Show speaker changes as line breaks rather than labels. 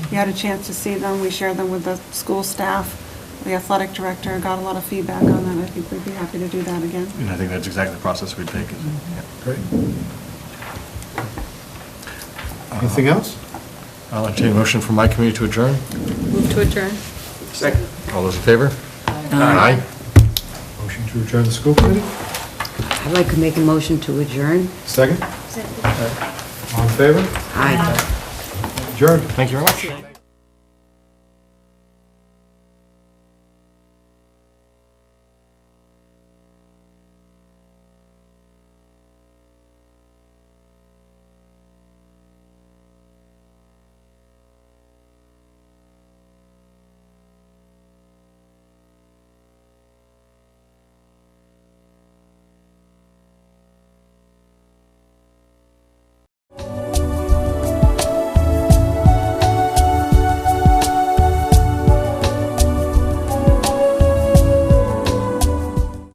You had a chance to see them, we shared them with the school staff, the athletic director, got a lot of feedback on that, I think we'd be happy to do that again.
And I think that's exactly the process we'd take. is- yeah.
Great. Anything else?
Uh-huh. I'll entertain a motion from my committee to adjourn.
Move to adjourn.
Second.
All those in favor? Aye.
Motion to adjourn the school committee?
I'd like to make a motion to adjourn.
Second? All right. All in favor?
Aye.
Adjourned.
Thank you very much.